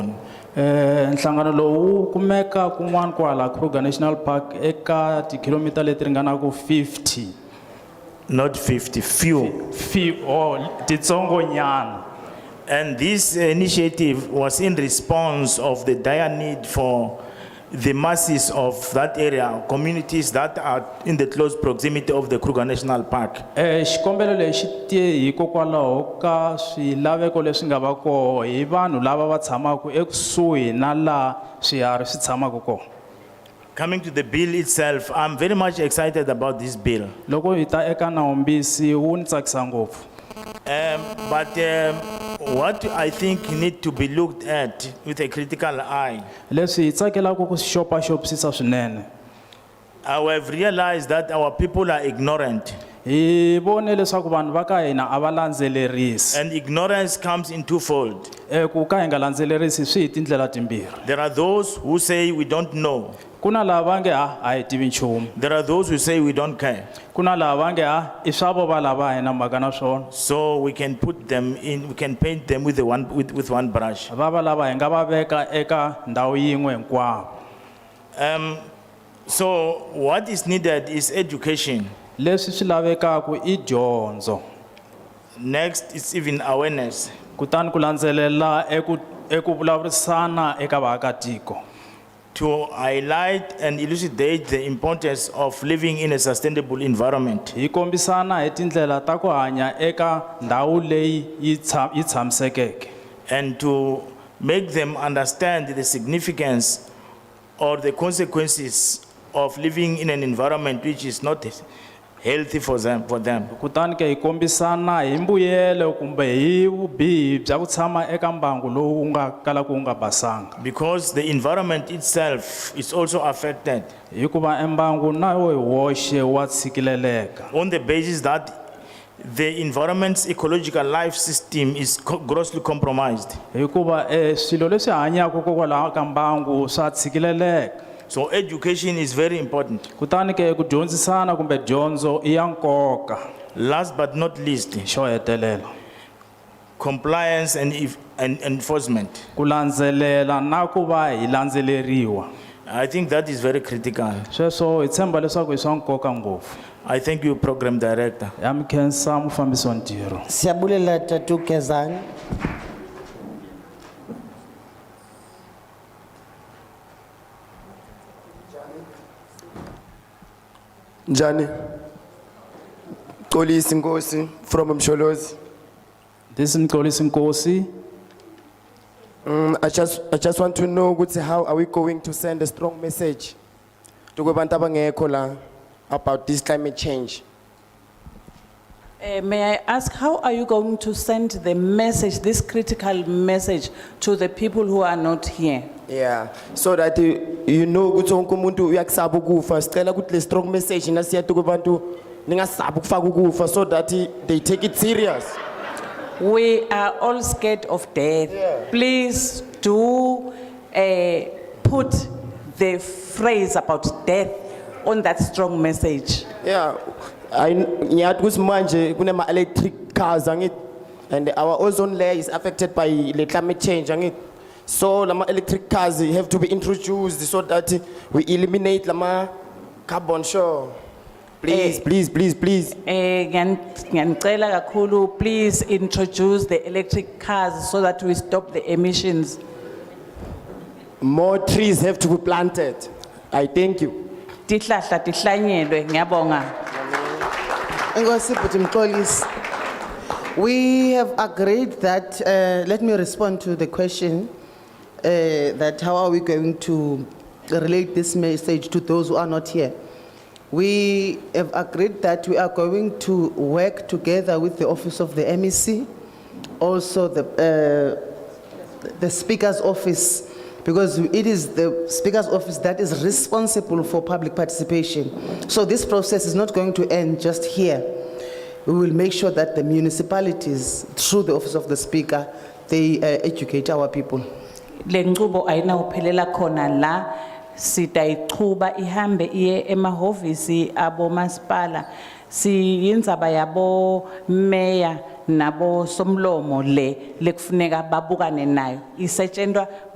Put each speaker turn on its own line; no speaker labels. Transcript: Eh, nhlangano lowu wu kumeka kun'wana kwahala Kruger National Park eka tikilomita leti ringanaku 50
not 50, few.
fi or titsongonyana
And this initiative was in response of the dire need for the masses of that area, communities that are in the close proximity of the Kruger National Park.
Eh, xikombelo lexi tie hikokwalaho ka swilaveko leswi nga va koho hi vanhu lava va tshamaka ekusuhi na laha swiharhi swi tshamaka kona
Coming to the bill itself, I'm very much excited about this bill.
loko hi ta eka nawumbisi wu ni tsakisa ngopfu
Um, But um, what I think need to be looked at with a critical eye,
leswi hi tsakelaka ku swi xopaxopisisa swinene
I have realized that our people are ignorant.
hi vone leswaku vanhu va ka hina a va landzelerisi
And ignorance comes in twofold.
Eh, ku ka hi nga landzelerisi swi hi tindlela timbirhi
There are those who say we don't know.
ku na laha va nge ha a hi tivi nchumu
There are those who say we don't care.
ku na laha va nge ha i swa vo va lava a hi na mhaka na swona
So we can put them in, we can paint them with, the one, with, with one brush.
va va lava hi nga va veka eka ndhawu yin'we hinkwavo
Um, so what is needed is education.
leswi swi lavekaka i dyondzo
Next is even awareness.
kutani ku landzelela eku eku vulavurisana eka vaakatiko
To highlight and elucidate the importance of living in a sustainable environment.
hi kombisana hi tindlela ta ku hanya eka ndhawu leyi yi tsha- yi tshamisekeke
and to make them understand the significance or the consequences of living in an environment which is not healthy for them, for them.
kutani ke hi kombisana hi mbuyelo kumbe hi vubihi bya ku tshama eka mbangu lowu wu nga kalaka wu nga basanga
Because the environment itself is also affected
hikuva embangu na wo hi woxe wa tshikileleka
on the basis that the environment's ecological life system is co- grossly compromised.
hikuva eh, swilo leswi hanyaka kokwalaho ka mbangu swa tshikileleka
So education is very important.
kutani ke ku dyondzisana kumbe dyondzo i ya nkoka
Last but not least,
xo hetelela
compliance and, if, and enforcement.
ku landzelela na ku va hi landzeleriwa
I think that is very critical.
sweswo hi tshemba leswaku i swa nkoka ngopfu
I thank you, Program Director.
ya mikhensa mufambisi wa ntirho
siyabulela tatu kezani
Njani? Xolisi Nkosi from Msholozi.
this is mxolisi nkosi
Mm, I just I just want to know ukuthi how are we going to send a strong message to kubantu abangekho la about this climate change.
Uh, May I ask, how are you going to send the message, this critical message, to the people who are not here?
Yeah, so that uh, you know ukuthi wonke umuntu uyakusaba ukufa. Sicela ukuthi le strong message nasiyathu kubantu ningasaba ukufaka ukufa so that uh, they take it serious.
We are all scared of death. Please do uh, put the phrase about death on that strong message.
Yeah, I ngiyathi ukuthi manje kunema electric cars angithi and our ozone layer is affected by the climate change angithi. So lama electric cars have to be introduced so that we eliminate lama carbon sure. Please,
Eh.
please, please, please.
Eh, ngiyan- ngiyanicela kakhulu, please introduce the electric cars so that we stop the emissions.
More trees have to be planted. I thank you.
Tihlahla tihlanyelwe, ngiyabonga.
Inkosi Bhuti Mxolisi. We have agreed that, uh, let me respond to the question, uh, that how are we going to relate this message to those who are not here? We have agreed that we are going to work together with the office of the MEC, also the, uh, the Speaker's office, because it is the Speaker's office that is responsible for public participation. So this process is not going to end just here. We will make sure that the municipalities, through the office of the Speaker, they uh, educate our people.
lenqubo ayinawuphelela khona la sitayichuba ihambe iye emahovisi abomasipala siyindzaba yabo meya nabo somlomo le lekufuneka babukane nayo isetshenzwa